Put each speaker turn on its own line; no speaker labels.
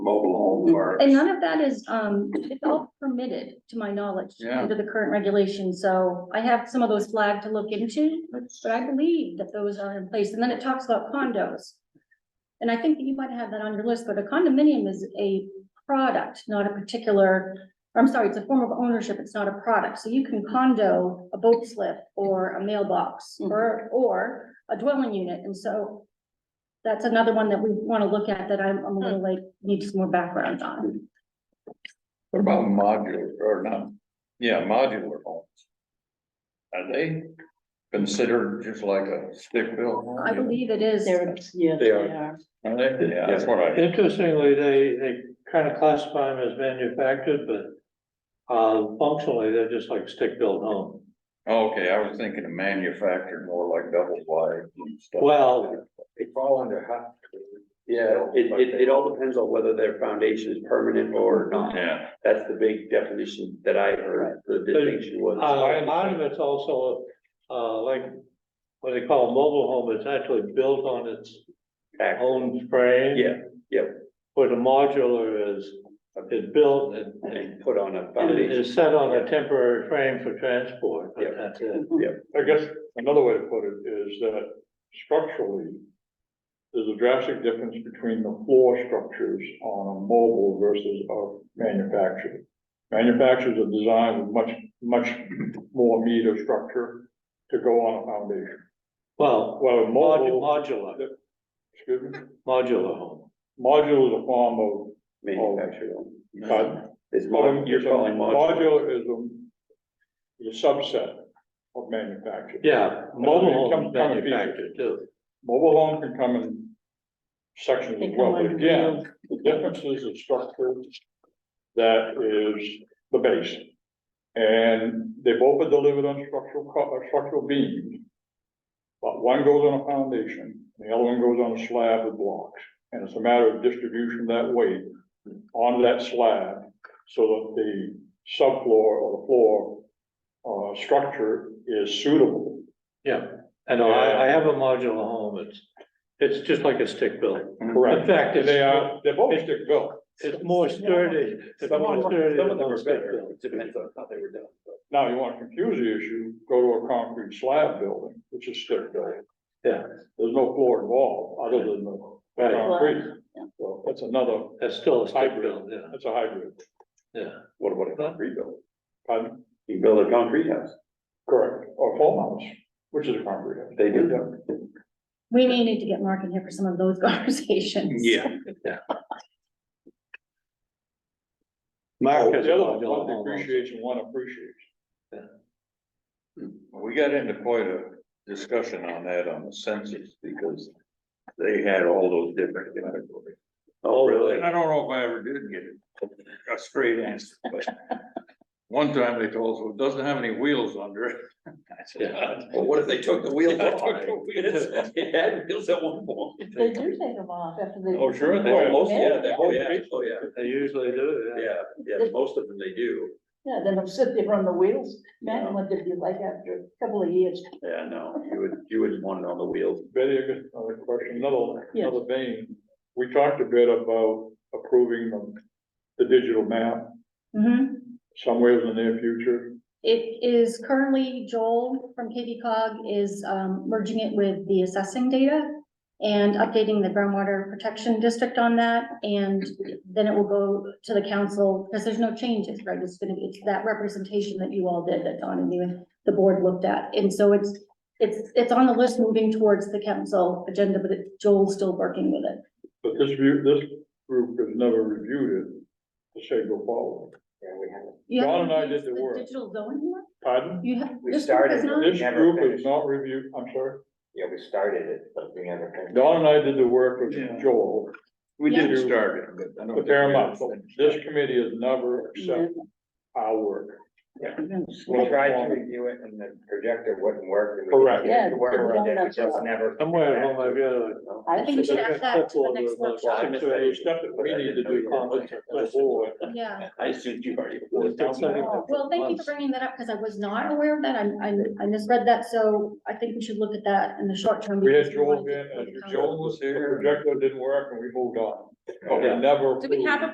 or.
Mm-hmm. And none of that is, um, it's all permitted, to my knowledge,
Yeah.
under the current regulations, so I have some of those flagged to look into, but I believe that those are in place, and then it talks about condos. And I think that you might have that on your list, but a condominium is a product, not a particular, I'm sorry, it's a form of ownership, it's not a product, so you can condo a boat slip or a mailbox, or, or a dwelling unit, and so that's another one that we wanna look at that I'm, I'm a little like, need some more background on.
What about modular or not? Yeah, modular homes. Are they considered just like a stick built? home?
I believe it is.
They're, yes,
They
they
are.
are.
Are they? Yeah, that's what I,
Interestingly, they, they kind of classify them as manufactured, but uh, functionally, they're just like stick-built home.
okay, I was thinking of manufactured more like double wide and stuff.
Well-
They fall under hot.
Yeah.
It, it, it all depends on whether their foundation is permanent or not.
Yeah,
That's the big definition that I heard, the distinction
Uh,
was.
a lot of it's also, uh, like what they call a mobile home, it's actually built on its
Back.
own frame.
Yeah, yeah.
Where the modular is, is built and, and
And put on a
it
foundation.
is set on a temporary frame for transport, but
Yeah.
that's it.
Mm-hmm.
I guess another way to put it is that structurally, there's a drastic difference between the floor structures on a mobile versus a manufactured. Manufacturers are designed with much, much more meat or structure to go on a foundation.
Well,
Well, a
modu-
mobile,
modular,
excuse me,
modular home.
modular is a form
Manufactured.
of, uh,
It's
well,
mod, you're
it's a-
calling modular.
modular is a, is a subset of manufactured.
Yeah,
It
mobile
comes-
homes
comes in pieces.
manufactured too.
Mobile home can come in sections
They
as
come
well, but
under
again,
wheels.
the difference is the structure that is the base. And they both are delivered on structural, co- uh, structural beams. But one goes on a foundation, and the other one goes on a slab of blocks, and it's a matter of distribution of that weight on that slab, so that the subfloor or the floor, uh, structure is suitable
I know, I, I have a modular home, it's, it's just like a stick built.
Correct.
In Mm-hmm. fact, it's-
They are, they're both stick built.
It's more sturdy, it's
Some
more
of
sturdy
them, some
than
of them
a
are
stick
better,
built.
it depends on how they were done.
Now, you wanna confuse the issue, go to a concrete slab building, which is stick built.
Yeah.
There's no floor involved, other than the
Right,
concrete, so that's another,
that's still a stick
Hybrid.
built, yeah,
that's a hybrid,
yeah.
What about a concrete building?
pardon?
You can build a concrete house.
Correct, or foam house, which is a concrete. house.
They do.
We may need to get Mark in here for some of those conversations.
Mark has a
Oh, The other one,
modular
one
home also.
depreciates and one appreciates.
we got into quite a discussion on that on the census because they had all those different categories.
Oh, really?
And I don't know if I ever did get a straight answer, but one time they told us, well, it doesn't have any wheels under it. I said,
Well, what if they took the wheels
Yeah,
off?
took the wheels.
It had wheels at one point.
They do take them off after they.
Oh, sure, they
Oh,
do.
most, yeah, they- oh, yeah, oh, yeah,
They usually do, yeah.
yeah, yeah, most of them they do,
Yeah, then they'll sit there on the wheels. Imagine what they'd be like after a couple of years.
yeah, no, you would, you wouldn't want it on the wheels.
Betty, I got another question, another,
Yes.
another vein. We talked a bit about approving the, the digital map
Mhm.
somewhere in the near future.
It is currently Joel from KB cog is um, merging it with the assessing data and updating the groundwater protection district on that, and then it will go to the council, because there's no changes, right? It's gonna be, it's that representation that you all did, that Don and you and the board looked at, and so it's, it's, it's on the list moving towards the council agenda, but it- Joel's still working with it.
But this view, this group has never reviewed it to say go forward.
You
Dawn
haven't
and I did
used
the work.
Digital zoning yet?
Pardon?
You have.
We
this group has
started
not-
This
Never
group has
finished.
not reviewed, I'm sorry.
Yeah, we started it, but we never finished.
Don and I did the work
Yeah.
with Joel,
We did
Yeah.
start it, but I don't.
but they're not, this committee has never accepted our work.
We tried to review it and the projector wouldn't work. and we
Correct.
didn't get it to work,
Yeah,
and it
it
was just never.
Somewhere at home, I've got a.
I think we should add that to the next
Clipboard with
workshop.
six
So
or
there's
eight
stuff that we need to do as a board.
Yeah.
I assumed you already.
Oh, Well, thank you for bringing that up, because I was not aware of that, I, I, I misread that, so I think we should look at that in the short term.
We had
because
Joel
wanted to-
uh,
in, and
Joel was
the
here.
projector didn't work, and we moved on. But we
Yeah.
never.
Do we have a
approved.